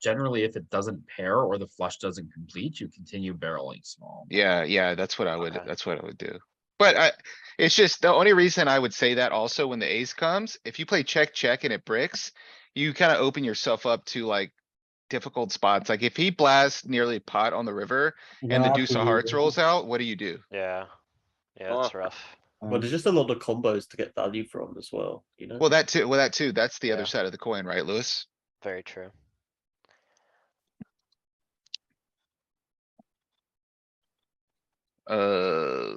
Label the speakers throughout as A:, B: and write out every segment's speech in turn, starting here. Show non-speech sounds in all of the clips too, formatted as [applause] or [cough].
A: generally if it doesn't pair or the flush doesn't complete, you continue barreling small.
B: Yeah, yeah, that's what I would,
A: Okay.
B: that's what I would do. But I, it's just, the only reason I would say that also when the ace comes, if you play check, check and it bricks, you kinda open yourself up to like difficult spots. Like if he blasts nearly pot on the river and the deuce of hearts rolls out, what do you do?
C: Yeah. Yeah, that's
D: Oh.
C: rough.
E: Um,
F: Well, there's just a lot of combos to get value from as well, you know?
B: Well, that too, well, that too, that's the
C: Yeah.
B: other side of the coin, right, Louis?
C: Very true.
B: Uh,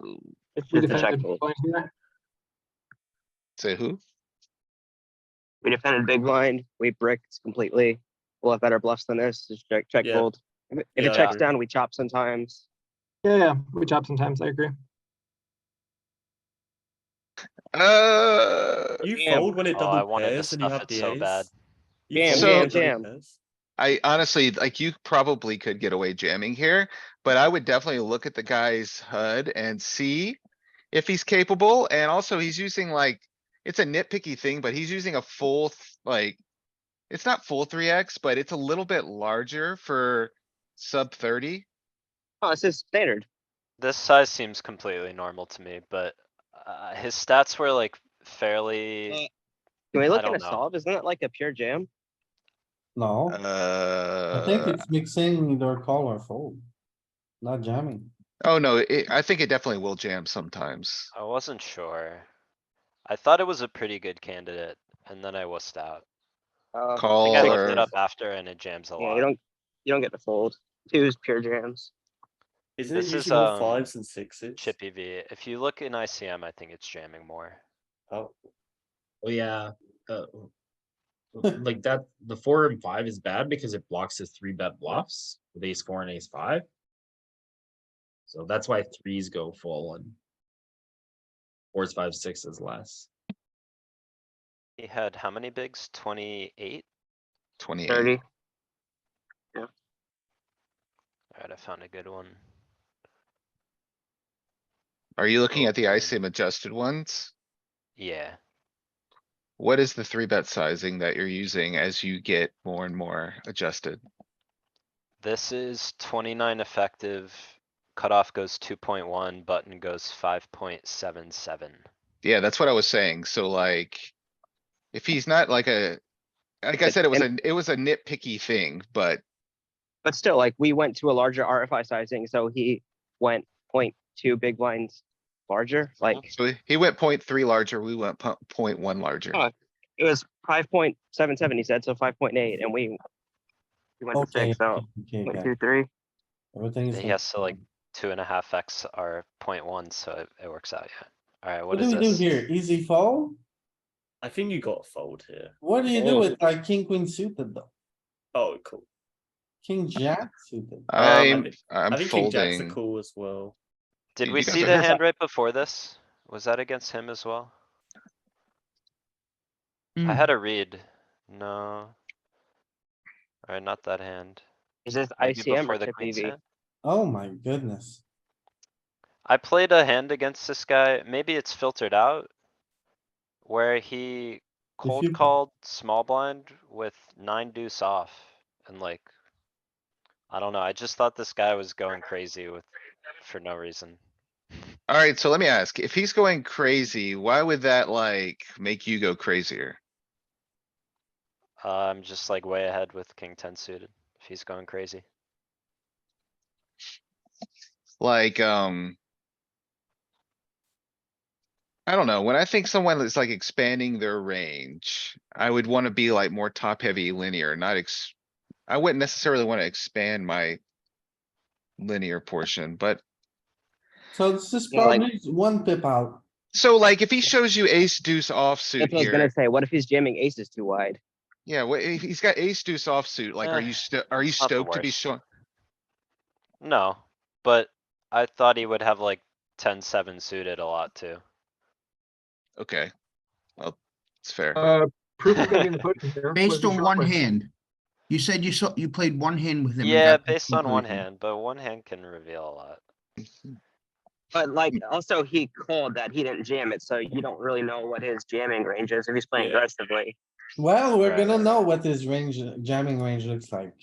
D: If we
F: Did the
D: defended,
F: check-
D: big blind here,
B: say who?
E: We defended big blind, we bricked completely. We'll have better bluffs than this, just check, check
F: Yeah.
E: fold. If it- if
F: Yeah,
E: it
F: I
E: checks
F: agree.
E: down, we chop sometimes.
D: yeah, yeah, we chop sometimes, I agree.
B: Uh,
F: You
E: Damn.
F: fold when it
C: Oh, I
F: double
C: wanted to
F: pairs and you
C: stuff
F: have
C: it
F: the
C: so bad.
F: ace. You
E: Damn,
F: fold when it
E: damn,
F: double pairs.
B: I honestly, like, you probably could get away jamming here, but I would definitely look at the guy's HUD and see if he's capable, and also he's using like, it's a nitpicky thing, but he's using a full, th- like, it's not full three X, but it's a little bit larger for sub thirty.
E: Oh, this is standard.
C: This size seems completely normal to me, but uh, his stats were like
E: Eh.
C: fairly.
E: Can we
C: I
E: look
C: don't
E: at a
C: know.
E: solve? Isn't it like a pure jam?
G: No, I think
B: Uh,
G: it's mixing either call or fold. Not jamming.
B: oh no, it, I think it definitely will jam sometimes.
C: I wasn't sure. I thought it was a pretty good candidate, and then I wussed out.
E: Uh,
C: I
B: Call
C: think I looked
B: or,
C: it up after, and it jams a
E: Yeah, you
C: lot.
E: don't, you don't get the fold. Two's pure jams.
F: Isn't it
C: This is,
F: usually more
C: um,
F: fives and sixes?
C: Chippy V. If you look in ICM, I think it's jamming more.
F: Oh,
A: Oh, yeah. uh, [laughs] Like that, the four and five is bad because it blocks his three bet bluffs with ace four and ace five. So that's why threes go full and fours, five, six is less.
C: He had how many bigs? Twenty-eight?
B: twenty-eight.
E: Thirty.
C: Alright, I found a good one.
B: Are you looking at the ICM adjusted ones?
C: Yeah,
B: What is the three bet sizing that you're using as you get more and more adjusted?
C: this is twenty-nine effective. Cutoff goes two point one, button goes five point seven seven.
B: Yeah, that's what I was saying. So like, if he's not like a, like I
E: But-
B: said, it was a,
E: and-
B: it was a nitpicky thing, but
E: But still, like, we went to a larger RFI sizing, so he went point two big blinds larger, like,
B: so he- he went point three larger, we went po- point one larger.
E: Oh, it was five point seven seven, he said, so five point eight, and we we went to
G: Okay,
E: six, so
G: okay,
E: point
G: okay.
E: two, three.
G: Everything is.
C: He has to like two and a half X are point one, so it, it works out, yeah. Alright, what
G: What do
C: is
G: we do
C: this?
G: here? Easy fold?
F: I think you got a fold here.
G: What do you do
E: Oh.
G: with like king, queen suited though?
F: Oh, cool.
G: King, jack suited?
F: Um,
B: I'm, I'm
F: I think king jacks are
B: folding.
F: cool as well.
C: Did
B: You
C: we
B: guys
C: see
B: are-
C: the hand right before this? Was that against him as well?
G: Hmm.
C: I had a read, no. Alright, not that hand.
E: Is this
C: Maybe
E: ICM
C: before
E: or
C: the
E: chip
C: queen's hand?
G: Oh my goodness.
C: I played a hand against this guy, maybe it's filtered out. Where he
G: you-
C: cold called small blind with nine deuce off and like. I don't know, I just thought this guy was going crazy with, for no reason.
B: Alright, so let me ask, if he's going crazy, why would that like make you go crazier?
C: Uh, I'm just like way ahead with king ten suited, if he's going crazy.
B: Like, um. I don't know. When I think someone is like expanding their range, I would wanna be like more top heavy linear, not ex. I wouldn't necessarily wanna expand my. Linear portion, but
G: So this is
E: Yeah, like-
G: probably one pip out.
B: so like if he shows you ace deuce offsuit
E: That's what I was gonna
B: here,
E: say, what if he's jamming aces too wide?
B: yeah, what, if he's got ace deuce offsuit, like
E: Uh,
B: are
C: Eh,
B: you sto- are you
C: it's not the
B: stoked to be
C: worst.
B: showing?
C: No, but I thought he would have like ten seven suited a lot too.
B: Okay. Well, it's fair.
D: Uh, proof of getting the potion here.
H: Based
D: was
H: on one
D: Schauber.
H: hand. You said you saw, you played one
C: [laughs]
H: hand with him. and
C: Yeah,
H: got the
C: based on one
H: conclusion.
C: hand, but one hand can reveal a lot.
E: But like, also he called that he didn't jam it, so you don't really know what his jamming range is if he's playing
F: Yeah.
E: aggressively.
G: Well, we're
C: Right,
G: gonna
C: right,
G: know
C: right.
G: what his range, jamming range looks like.